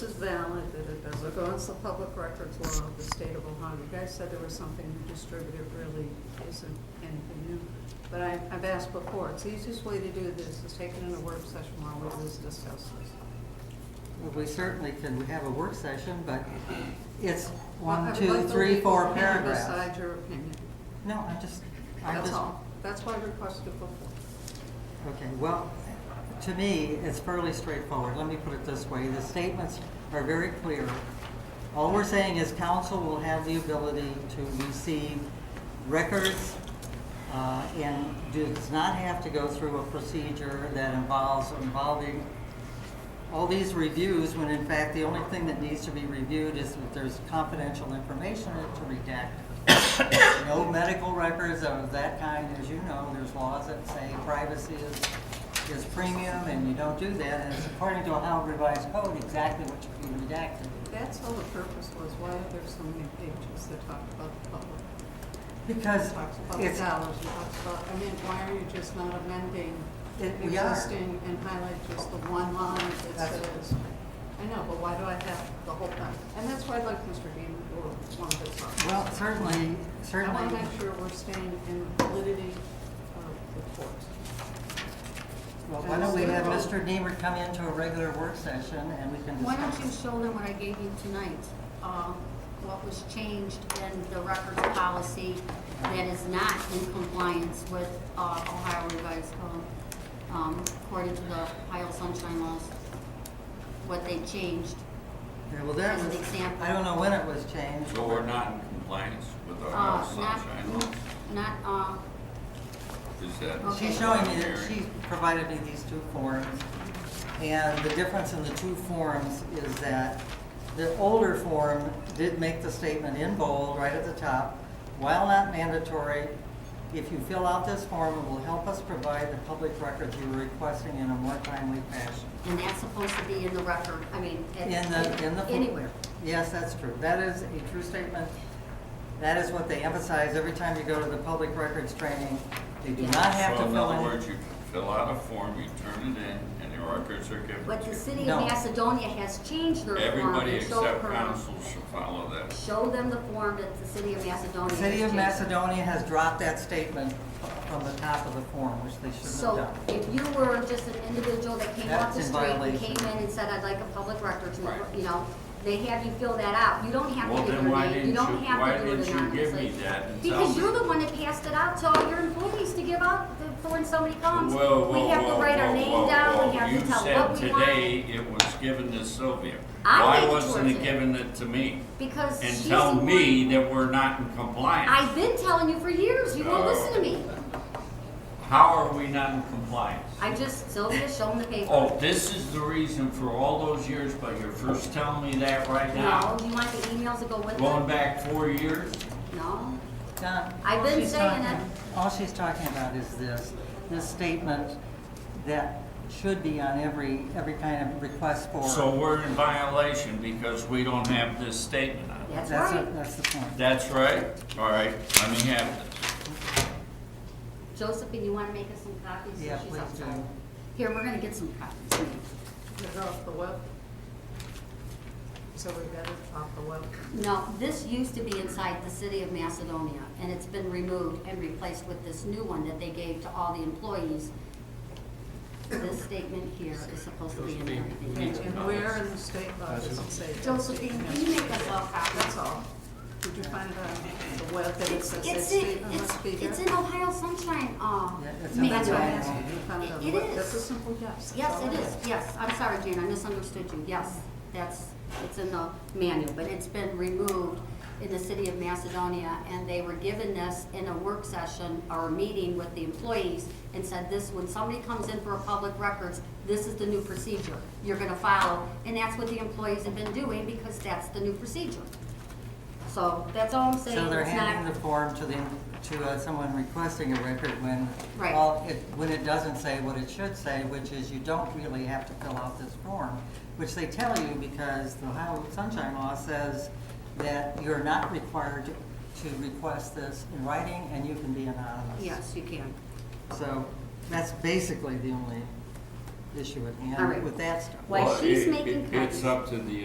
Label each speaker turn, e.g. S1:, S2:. S1: valid, that it does not go against the public records law of the state of Ohio. You guys said there was something you distributed, It really isn't anything new. But I, I've asked before, it's the easiest way to do this is take it in a work session while we just discuss this.
S2: Well, we certainly can, we have a work session, but it's
S1: Well, I
S2: one,
S1: would
S2: two,
S1: like the
S2: three,
S1: legal
S2: four
S1: opinion
S2: paragraphs.
S1: Beside your opinion,
S2: No, I just, I
S1: that's
S2: just,
S1: all. That's why I requested before.
S2: okay, well, to me, it's fairly straightforward. Let me put it this way, the statements are very clear. All we're saying is council will have the ability to receive records uh, and does not have to go through a procedure that involves involving all these reviews, when in fact, the only thing that needs to be reviewed is that there's confidential information to redact. No medical records of that kind, as you know, there's laws that say privacy is, is premium, and you don't do that, and it's according to Ohio revised code, exactly what should be redacted.
S1: That's all the purpose was, why are there so many pages that talk about the public?
S2: Because
S1: Talks about the
S2: it's,
S1: dollars, it talks about, I mean, why are you just not amending
S2: It- we are.
S1: existing and highlight just the one line that
S2: That's-
S1: says? I know, but why do I have the whole thing? And that's why I'd like Mr. Dean or one of his officers.
S2: well, certainly,
S1: I want to
S2: certainly,
S1: make sure we're staying in validity of the court.
S2: well, why don't we have Mr. Deemer come into a regular work session, and we can
S3: Why don't you
S2: discuss.
S3: show them what I gave you tonight, um, what was changed in the records policy that is not in compliance with uh, Ohio revised code, um, according to the Ohio sunshine laws, what they changed.
S2: Yeah, well, that
S3: as an
S2: was,
S3: example.
S2: I don't know when it was changed.
S4: So we're not in compliance with our
S3: Uh,
S4: sunshine laws?
S3: Not, not, uh,
S4: Is that?
S3: Okay.
S2: She's showing me that she provided me these two forms, and the difference in the two forms is that the older form did make the statement in bold right at the top, while not mandatory, if you fill out this form, it will help us provide the public records you were requesting in a more timely fashion.
S3: and that's supposed to be in the record, I mean, it-
S2: In the, in the.
S3: anywhere.
S2: Yes, that's true. That is a true statement. That is what they emphasize every time you go to the public records training. They do not have to
S4: So in
S2: fill in.
S4: other words, you fill out a form, you turn it in, and the records are given
S3: But
S4: to
S3: the
S4: you.
S3: city
S2: No.
S3: of Macedonia has changed their form.
S4: Everybody
S3: and showed
S4: except
S3: her-
S4: council should follow that.
S3: Show them the form that the city of Macedonia
S2: The
S3: has
S2: City of
S3: changed.
S2: Macedonia has dropped that statement from the top of the form, which they shouldn't
S3: So
S2: have done.
S3: if you were just an individual that came off
S2: That's
S3: the
S2: in
S3: street and
S2: violation.
S3: came in and said, I'd like a public records, number,"
S4: Right.
S3: you know, they have you fill that out. You don't have to
S4: Well,
S3: give
S4: then
S3: your
S4: why
S3: name, you
S4: didn't
S3: don't
S4: you-
S3: have to
S4: why
S3: do it
S4: didn't you give me
S3: anonymously.
S4: that and tell
S3: Because
S4: me?
S3: you're the one that passed it out to all your employees to give out the- for when somebody comes.
S4: Whoa,
S3: Um, We
S4: whoa,
S3: have to
S4: whoa,
S3: write our
S4: whoa,
S3: name
S4: whoa,
S3: down,
S4: whoa.
S3: we have to tell what we
S4: You said today
S3: want.
S4: it was given to Sylvia.
S3: I gave it
S4: Why
S3: to
S4: wasn't
S3: her
S4: it
S3: today.
S4: given it to me?
S3: Because she's
S4: And
S3: the
S4: tell me
S3: one.
S4: that we're not in compliance.
S3: I've been telling you for years, you won't
S4: Oh.
S3: listen to me.
S4: How are we not in compliance?
S3: I just, Sylvia, show them the paper.
S4: Oh, this is the reason for all those years, but you're first telling me that right
S3: No,
S4: now?
S3: do you want the emails to go with
S4: Going
S3: it?
S4: back four years?
S3: No.
S2: Don,
S3: I've
S2: all
S3: been
S2: she's
S3: saying
S2: talking- All she's talking about is this, this statement that should be on every, every kind of request for.
S4: So we're in violation because we don't have this statement on it.
S3: That's
S2: That's,
S3: right.
S2: it, that's the point.
S4: That's right? All right, let me have this.
S3: Josephine, you want to make us some copies?
S2: Yeah,
S3: She's
S2: please
S3: outside.
S2: do.
S3: Here, we're going to get some copies.
S1: Is it off the web? So we got it off the web.
S3: No, this used to be inside the city of Macedonia, and it's been removed and replaced with this new one that they gave to all the employees. This statement here is supposed to be in everything.
S1: And where in the state law does it say? that?
S3: Josephine, can you make us all
S1: That's
S3: copies?
S1: all. Did you find it on the web that it
S3: It's,
S1: says that
S3: it's,
S1: statement
S3: it's,
S1: must be here?
S3: it's in Ohio Sunshine, um,
S2: Yeah, it's in
S1: That's why I
S2: Ohio.
S3: manual.
S1: asked you, you found it on the
S3: It- it
S1: web.
S3: is.
S1: That's a simple yes.
S3: Yes, it is, yes, I'm sorry, Jane, I misunderstood you, yes, that's, it's in the manual, but it's been removed in the city of Macedonia, and they were given this in a work session or a meeting with the employees, and said this, when somebody comes in for a public records, this is the new procedure you're gonna follow, and that's what the employees have been doing, because that's the new procedure. So, that's all I'm saying,
S2: So they're
S3: it's not,
S2: handing the form to the, to uh, someone requesting a record when,
S3: Right.
S2: all- it- when it doesn't say what it should say, which is you don't really have to fill out this form, which they tell you because the Ohio Sunshine Law says that you're not required to request this in writing and you can be anonymous.
S3: yes, you can.
S2: So that's basically the only issue at
S3: All right.
S2: hand with that stuff.
S3: Why
S4: Well,
S3: she's
S4: it-
S3: making
S4: it- It's
S3: copies.
S4: up to the